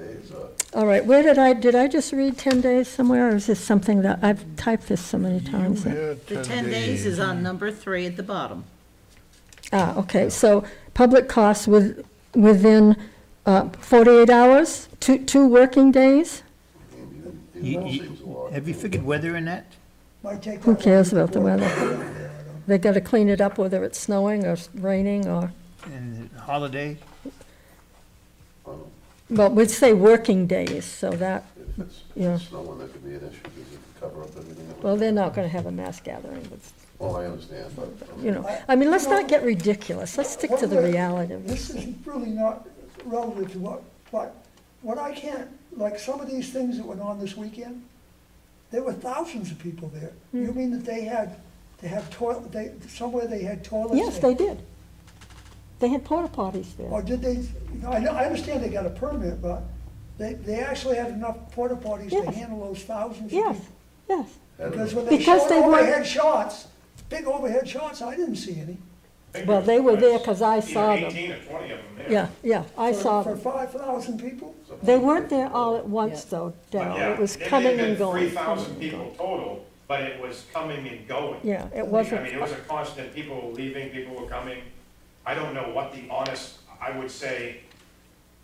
is, uh, All right, where did I, did I just read 10 days somewhere, or is this something that, I've typed this so many times? that- yeah, The 10 days is on number three at the bottom. Ah, okay, so public costs with, within uh, 48 hours, two, two working days? You- It all you- seems a lot. Have you figured weather in that? Might take Who that cares one. about the weather? They gotta clean it up whether it's snowing or raining or, And the holiday? well, we'd say working days, so that, If it's if Yeah. it's snowing, that could be an issue, because it could cover up everything. that well, would- they're not gonna have a mass gathering, but, Oh, I understand, but. you know, I mean, let's not get ridiculous, let's stick to the reality of This this. is really not relative to what, but what I can't, like some of these things that went on this weekend, there were thousands of people there. Hmm. You mean that they had, they have toilet, they, somewhere they had toilets? Yes, they did. They had porta potties Or there. did they, you know, I know, I understand they got a permit, but they, they actually had enough porta potties to Yes. handle those thousands of Yes, people. yes. Because Anyway, when they Because showed they were- overhead shots, big overhead shots, I didn't see any. Well, they were there 'cause I Either saw them. Eighteen or twenty of them there. Yeah, yeah, I For- saw For them. five thousand people? They weren't there all at once, though, But Daryl. yeah, It was there may coming have and been going. Three thousand coming and people going. total, but it was coming and going. Yeah, it I mean, wasn't, it was a constant, people were leaving, people were coming. I don't know what the honest, I would say,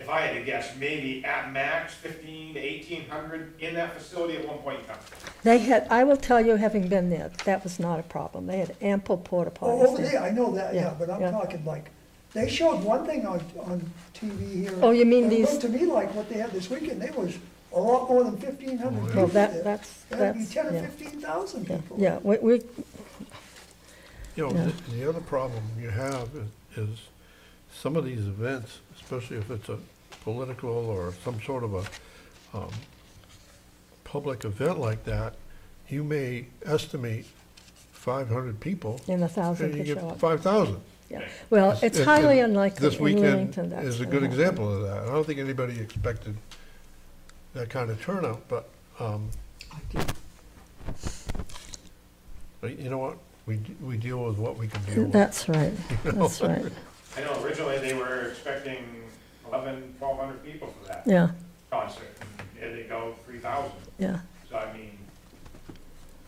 if I had to guess, maybe at max fifteen to eighteen hundred in that facility at one point in time. they had, I will tell you, having been there, that was not a problem. They had ample porta Oh, potties over there, there. I know that, Yeah, yeah, but I'm yeah. talking like, they showed one thing on, on TV here. Oh, you mean and It these- looked to me like what they had this weekend, there was a lot more than fifteen hundred people Well, that- there. that's- That'd be that's- ten or yeah. fifteen thousand people. Yeah, we, we, You know, the- the other problem you have is- is some of these events, especially if it's a political or some sort of a um, public event like that, you may estimate 500 people. and a thousand And you could show get up. 5,000. Yeah. Well, it's And- highly and unlikely This in weekend Leamington that's is a gonna good happen. example of that. I don't think anybody expected that kind of turnout, but, um, but you know what? We, d- we deal with what we can deal with. That's right, that's right, I know originally they were expecting eleven, twelve hundred people for that yeah, concert. and There they go, three thousand. yeah. So I mean,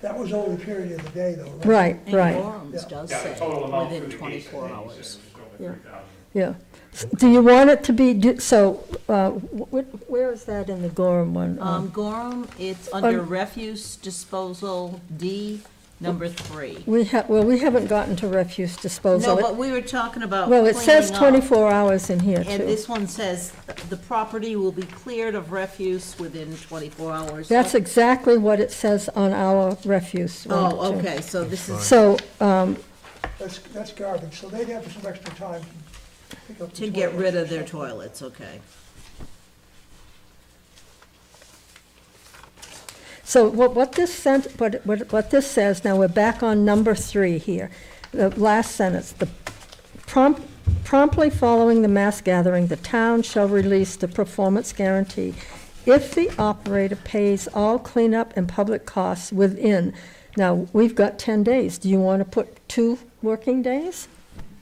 That was over the period of the day though, right? Right, And right, Gorham's does yeah, the say total amount through within the gates, I 24 think, he hours. said it was Yeah. over three thousand. yeah. S- Do you want it to be, do- so, uh, wh- wh- where is that in the Gorham one? Um, Um, Gorham, it's under Um, refuse disposal D, number three. We have, well, we haven't gotten to refuse disposal. No, but we were talking about Well, it says cleaning up, 24 hours in here, And too. this one says the property will be cleared of refuse within 24 hours. That's exactly what it says on our refuse. one, Oh, too. okay, so this is So, um, That's, that's garbage, so they'd have some extra time to pick up. the to get toilets rid of and their stuff. toilets, okay. so what, what this sent, what, what what this says, now we're back on number three here, the last sentence, the prompt, promptly following the mass gathering, the town shall release the performance guarantee if the operator pays all cleanup and public costs within. Now, we've got 10 days. Do you want to put two working days?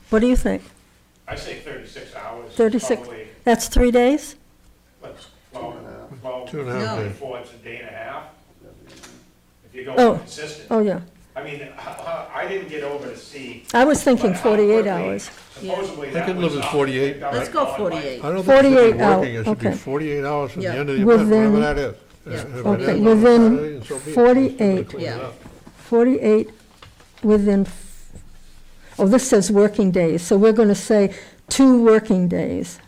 What do you think? I say thirty-six hours. is 36, Probably, that's three days? what's, twelve, twelve, Two and a half No. days. four, it's a day and a half. If you Oh. go consistent. Oh, yeah. I mean, h- h- I didn't get over to see. I was thinking but uh, how 48 quickly- hours. Supposedly I that could was live with up. 48. That Let's was go gone by- 48. I don't think it should be 48 hour, okay. working, it should be 48 hours from the Yeah. end of the event, whatever Within- that is. If it Okay, ends on within Saturday, so be it. 48. Clean it Yeah. up. 48 within, f- oh, this says working days, so we're going to say two working days,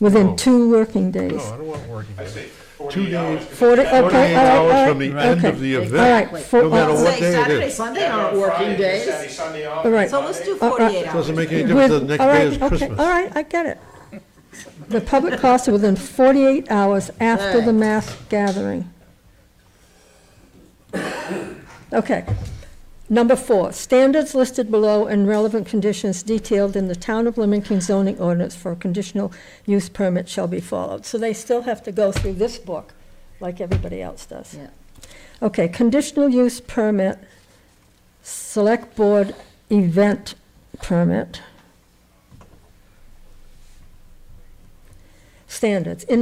within No. two working days. No, I don't want working. I say days. forty-eight hours. days. 40, okay, all right, 48 all hours right, from the end okay. of the All event. right, for- no matter uh, what day it Saturday, is. Sunday They aren't working Saturday, days. Sunday off. All right. So let's do Monday. Uh, uh, 48 hours. Doesn't make any difference, the with- next all day is right, okay, Christmas. all right, I get it. The public costs are within 48 hours after the Right. mass gathering. Okay. Number four, standards listed below and relevant conditions detailed in the Town of Leamington zoning ordinance for a conditional use permit shall be followed. So they still have to go through this book, like everybody else does. Yeah. Okay, conditional use permit, select board event permit. Standards, in